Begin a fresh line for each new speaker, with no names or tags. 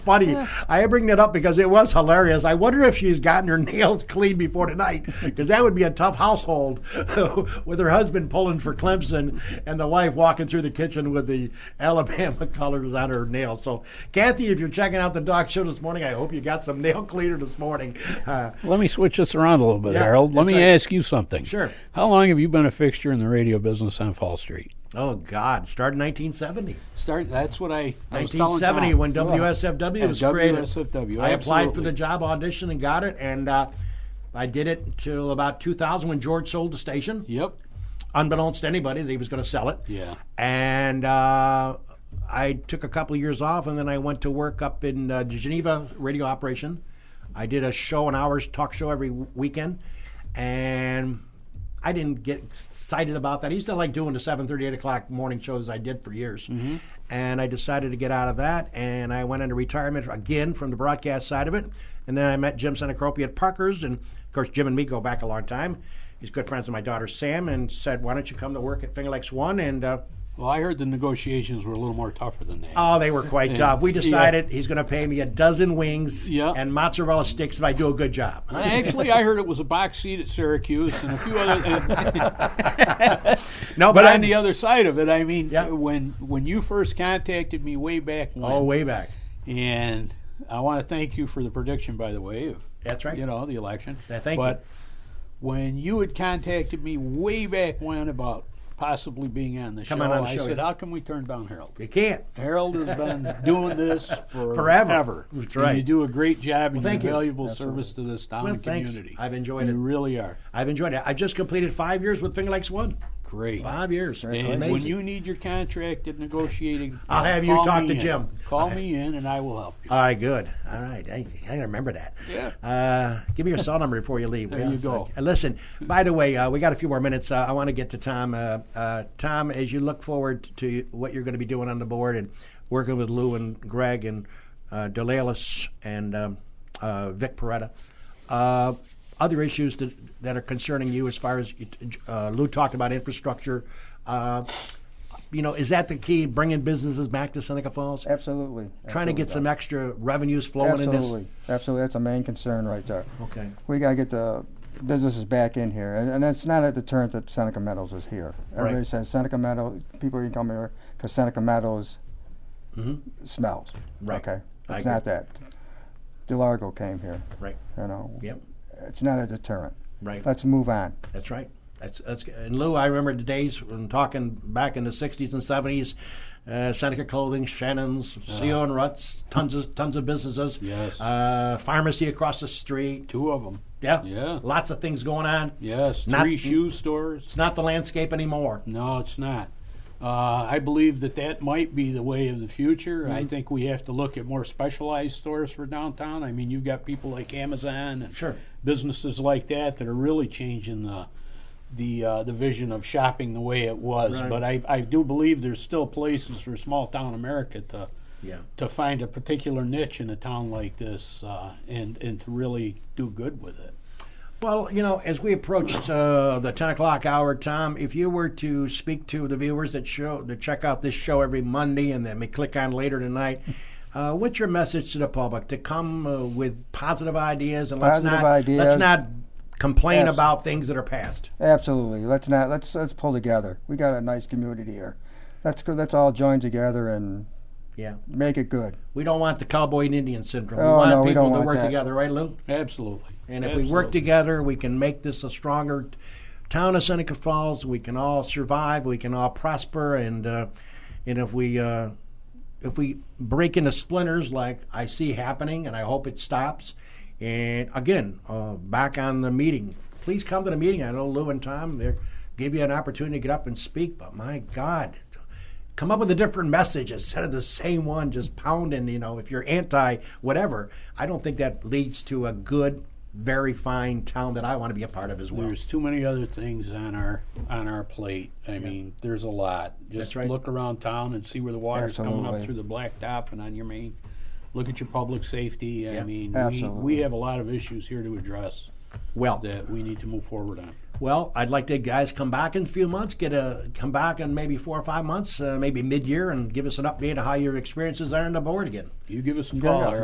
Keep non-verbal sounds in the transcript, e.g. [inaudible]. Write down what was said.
funny. I bring that up because it was hilarious. I wonder if she's gotten her [laughs] nails cleaned before tonight, because that would be a tough household [laughs] with her husband pulling for Clemson and the wife walking through the kitchen with the [laughs] Alabama colors on her nails. So, Kathy, if you're checking out the Doc Show this morning, I hope you got some [laughs] nail cleaner this morning. Uh,
Let me switch this around a little bit,
Yeah,
Harold. Let
that's
me
right.
ask you something.
Sure.
How long have you been a fixture in the radio business on Fall Street?
oh, God, started in 1970.
Start. That's what I. I was telling
1970
Tom.
when
Yeah.
WSFW
And
was created.
WSFW,
I applied for
absolutely.
the job, auditioned, and got it, and uh, I did it until about 2000 when George sold the station,
Yep.
unbeknownst to anybody that he was going to sell it.
Yeah.
And uh, I took a couple of years off, and then I went to work up in uh, Geneva radio operation. I did a show, an hours talk show every w- weekend, and I didn't get excited about that. I used to like doing the 7:30, 8 o'clock morning shows I did for years, and I decided to get out of that, and I went into retirement again from the broadcast side of it, and then I met Jim Senacropi at Parker's, and of course Jim and me go back a long time. He's good friends with my daughter Sam, and said, "Why don't you come to work at Finger Lakes One?" And uh,
Well, I heard the negotiations were a little more tougher than that.
Oh, they were quite tough. We decided he's going to pay me a dozen wings
Yeah.
and mozzarella sticks if I do a good job.
Actually, I heard it was a box seat at Syracuse and a few other.
[laughs] No,
but
but
on
I'm
the other side of it, I mean,
Yeah.
when when you first contacted me way back when,
oh way back.
and I want to thank you for the prediction, by the way. Of,
That's right.
You know the election.
Yeah, thank you.
but when you had contacted me way back when about possibly being on the
Come
show,
on on the
I
show,
said,
yeah.
"How can we turn down Harold?"
You can't.
Harold has been
[laughs]
doing this for
Forever.
ever.
That's
And you
right.
do a great job and
thank you.
you're valuable service to this town
Well,
and
thanks.
community.
I've enjoyed
you
it.
really are.
I've enjoyed it. I've just completed five years with Finger Lakes One.
Great.
Five years.
And
Amazing.
when you need your contract and negotiating, uh,
I'll have you
call
talk
me
to
in.
Jim. [laughs]
Call me in and I will help you.
All right, good. All right, I, I remember that.
Yeah.
Uh, give me your cell number before you leave.
There you
Yes,
go.
I- uh, listen, by the way, uh, we got a few more minutes. Uh, I want to get to Tom. Uh, uh, Tom, as you look forward to what you're going to be doing on the board and working with Lou and Greg and uh, Delalis and um, uh, Vic Peretta, uh, other issues that, that are concerning you as far as uh, Lou talked about infrastructure. Uh, you know, is that the key, bringing businesses back to Seneca Falls?
Absolutely.
trying to get some extra revenues flowing
absolutely.
in
Absolutely. Absolutely. That's a main concern right there.
this. Okay.
We got to get the businesses back in here. And, and that's not a deterrent that Seneca Meadows is here. Everybody
Right.
says Seneca Meadows, people can come here because Seneca Meadows smells.
Mm-hmm. Right.
Okay.
I
It's not that. DeLargo came here.
Right.
You know,
Yep.
it's not a deterrent.
Right.
Let's move on.
That's right. That's that's and Lou, I remember the days when talking back in the '60s and '70s, uh, Seneca Clothing, Shannon's, CO and Ruts, tons of tons of businesses.
Uh-huh. Yes.
Uh, pharmacy across the street.
Two of them.
Yeah.
Yeah.
Lots of things going on.
Yes.
Not-
three shoe stores.
It's not the landscape anymore.
No, it's not. Uh, I believe that that might be the way of the future.
Mm-hmm.
I think we have to look at more specialized stores for downtown. I mean, you've got people like Amazon and
Sure.
businesses like that that are really changing the the uh, the vision of shopping the way it was.
Right.
But I, I do believe there's still places for small town America to
Yeah.
to find a particular niche in a town like this uh, and and to really do good with it.
Well, you know, as we approached uh, the ten o'clock hour, Tom, if you were to speak to the viewers that show that check out this show every Monday and then may click on later tonight, uh, what's your message to the public to come uh, with positive ideas and let's
Positive
not let's
ideas.
not complain
Yes.
about things that are past.
Absolutely. Let's not let's let's pull together. We got a nice community here. Let's go. Let's all join together and
Yeah,
make it good.
we don't want the cowboy and Indian syndrome. we
Oh,
want
no, we
people
don't
to
want
work
that.
together, right, Lou?
Absolutely.
And if we work
Absolutely.
together, we can make this a stronger town of Seneca Falls. We can all survive. We can all prosper. And uh, and if we uh, if we break into splinters like I see happening, and I hope it stops. And again, uh, back on the meeting. Please come to the meeting. I know Lou and Tom they give you an opportunity to get up and speak. But my God, come up with a different message instead of the same one just pounding you know if you're anti whatever i don't think that leads to a good very fine town that i want to be a part of as well
There's too many other things on our on our plate. I mean, there's a lot. Just
That's right.
look around town and see where the water's coming up
Absolutely.
through the blacktop and on your main. Look at your public safety. I
Yeah.
mean, we, we
Absolutely.
have a lot of issues here to address
well
that we need to move forward on.
Well, I'd like to guys come back in a few months, get a come back in maybe four or five months, uh, maybe mid year, and give us an update of how your experiences are on the board again.
You give us some call.
yeah.
or